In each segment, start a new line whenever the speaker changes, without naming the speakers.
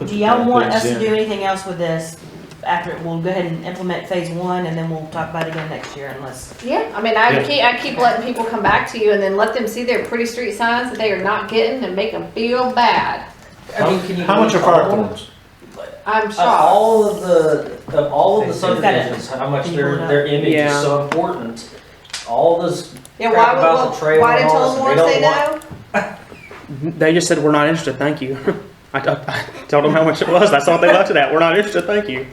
Do y'all want us to do anything else with this after, we'll go ahead and implement phase one and then we'll talk about it again next year unless,
Yeah, I mean, I
Yeah.
keep I keep letting people come back to you, and then let them see their pretty street signs that they are not getting, and make them feel bad.
I mean, can you?
How much are
name
fire
all of them?
thorns?
I'm
Of
shocked.
all of the, of all of the subdivisions, how much
Can you
their,
pull it up?
their image is
Yeah.
so important. All this,
Yeah, why
crap about the
would
trail
why
and
did
all this,
Tullamore
they
say
don't
no?
Mm-hmm. They just said, we're not interested, thank you. I, I, I told them how much it was, that's all they left it at, we're not interested, thank you.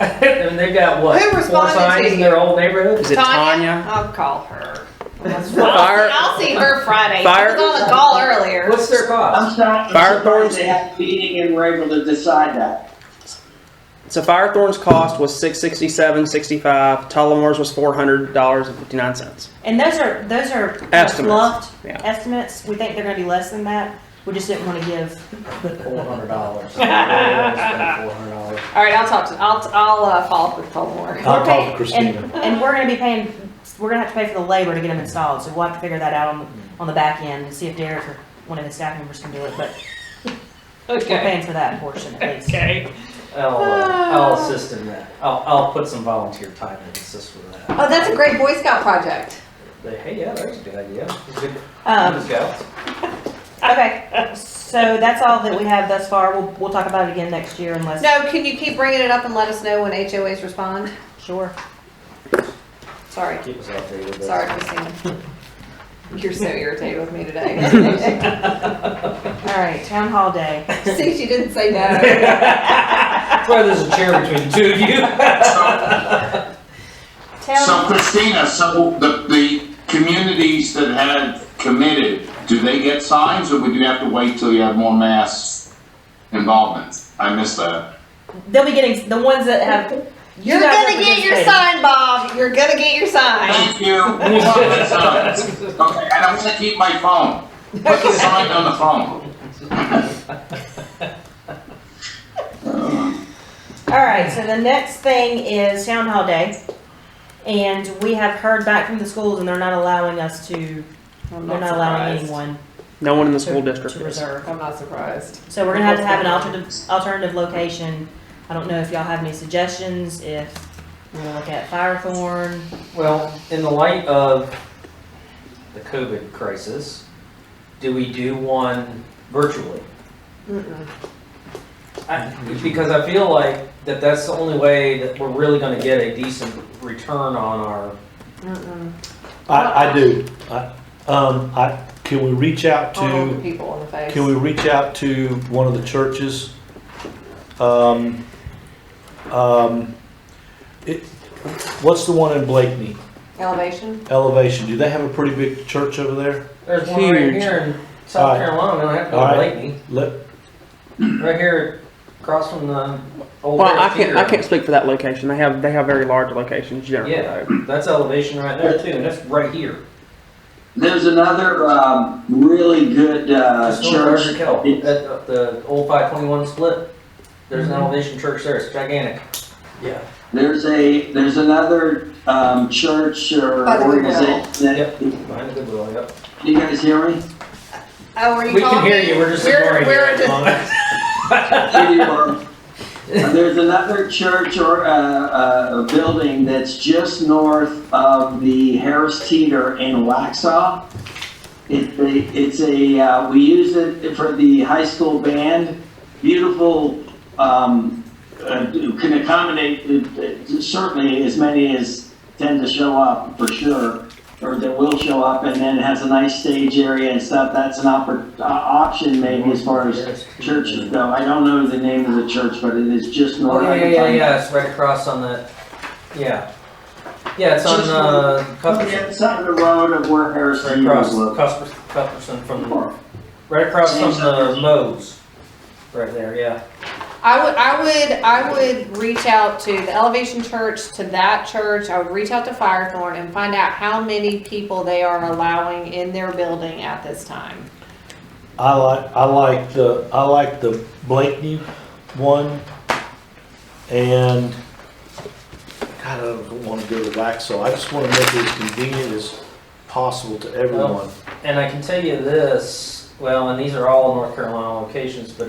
and they've got what?
Who
Four
responded to
signs in
you?
their old neighborhood?
Is it Tanya?
I'll call her.
Fire-
I'll see her Friday.
Fire-
I was on the call earlier.
What's their cost?
I'm sorry,
Fire
I'm surprised
thorns?
they have a meeting and were able to decide that.
So Firethorn's cost was six sixty seven sixty five. Tullamore's was four hundred dollars and fifty nine cents.
and those are, those are
Estimates,
bluffed
yeah.
estimates. We think they're gonna be less than that. We just didn't wanna give,
Um,
Four hundred dollars. Four hundred dollars.
All right, I'll talk to I'll I'll uh, follow up with Tullamore.
I'll
Okay,
talk to Christina.
and we're gonna be paying, we're gonna have to pay for the labor to get them installed, so we'll have to figure that out on, on the back end and see if Derek or one of his staff members can do it, but we're
Okay.
paying for that portion at least.
Okay.
I'll, uh, I'll
Ah.
assist in that. I'll, I'll put some volunteer time and assist with that.
Oh, that's a great Boy Scout project.
But hey, yeah, that's a good idea. Good-
Um,
good scouts.
Okay, so that's all that we have thus far. We'll, we'll talk about it again next year unless.
No, can you keep bringing it up and let us know when HOAs respond?
Sure.
Sorry,
Keep us updated. but-
sorry, Christina. You're so irritated with me today.
All right, town hall day.
See, she didn't say no.
That's why there's a chair between the two of you.
So
Town,
Christina, so the, the communities that had committed, do they get signs or would you have to wait till you have more mass involvement? I missed that.
They'll be getting, the ones that have. you
you're
guys
gonna
are
get your
participating.
sign, Bob. You're gonna get your sign.
Thank you.
uh,
Okay, and I'm gonna keep my phone. Put the sign on the phone.
All right, so the next thing is town hall day. And we have heard back from the schools and they're not allowing us to,
I'm
they're not allowing anyone
No one in the school
to
district
to
is.
reserve.
I'm not surprised.
So we're gonna have to have an alternative, alternative location. I don't know if y'all have any suggestions, if we wanna look at Firethorn.
Well, in the light of the COVID crisis, do we do one virtually? I- Because I feel like that that's the only way that we're really gonna get a decent return on our,
I, I do. I, um, I, can we reach out
All
to,
people in the face.
can we reach out to one of the churches? Um, um, it, what's the one in Blakeney?
Elevation?
Elevation, do they have a pretty big church over there?
there's one right
Huge.
here in South
Alright.
Carolina, I have to go to
Alright.
Lakeview.
Let,
Right here across from the old.
Well, I
Red
can't, I
Theater.
can't speak for that location. They have, they have very large locations generally.
Yeah, that's elevation right there too, and that's right here.
There's another um, really good uh,
That's North
church.
Berger Kettle, at uh, the old five twenty-one split, there's
Mm-hmm.
an elevation church there, it's gigantic. Yeah.
There's a there's another um, church or
By the Goodwill.
organization.
Yep,
That,
behind the Goodwill, yep.
You guys hear me?
Oh, were you
We can hear
talking?
you, we're just
We're-
ignoring you.
we're
at the
just-
moment.
Anyway, there's another church or uh, uh, a building that's just north of the Harris Teeter in Waxhaw. It, it's a uh, we use it for the high school band. Beautiful, um, uh, can accommodate uh, certainly as many as tend to show up for sure, or that will show up, and then it has a nice stage area and stuff. That's an oppor- uh, option maybe as far as churches though. I don't know the name of the church, but it is just
Oh,
north.
yeah, yeah, yeah, yeah, it's right across on the, yeah. Yeah, it's on,
Just-
uh, Cuthbertson,
It's on the road of where Harris
right
Teeter
across,
is located.
Cuthbertson, Cuthbertson from, right across from the Moe's. Right there, yeah.
I would, I would, I would reach out to the Elevation Church, to that church, I would reach out to Firethorn and find out how many people they are allowing in their building at this time.
I like, I like the, I like the Blakeney one, and, God, I don't wanna go to Waxaw, I just wanna make it as convenient as possible to everyone.
And I can tell you this, well, and these are all North Carolina locations, but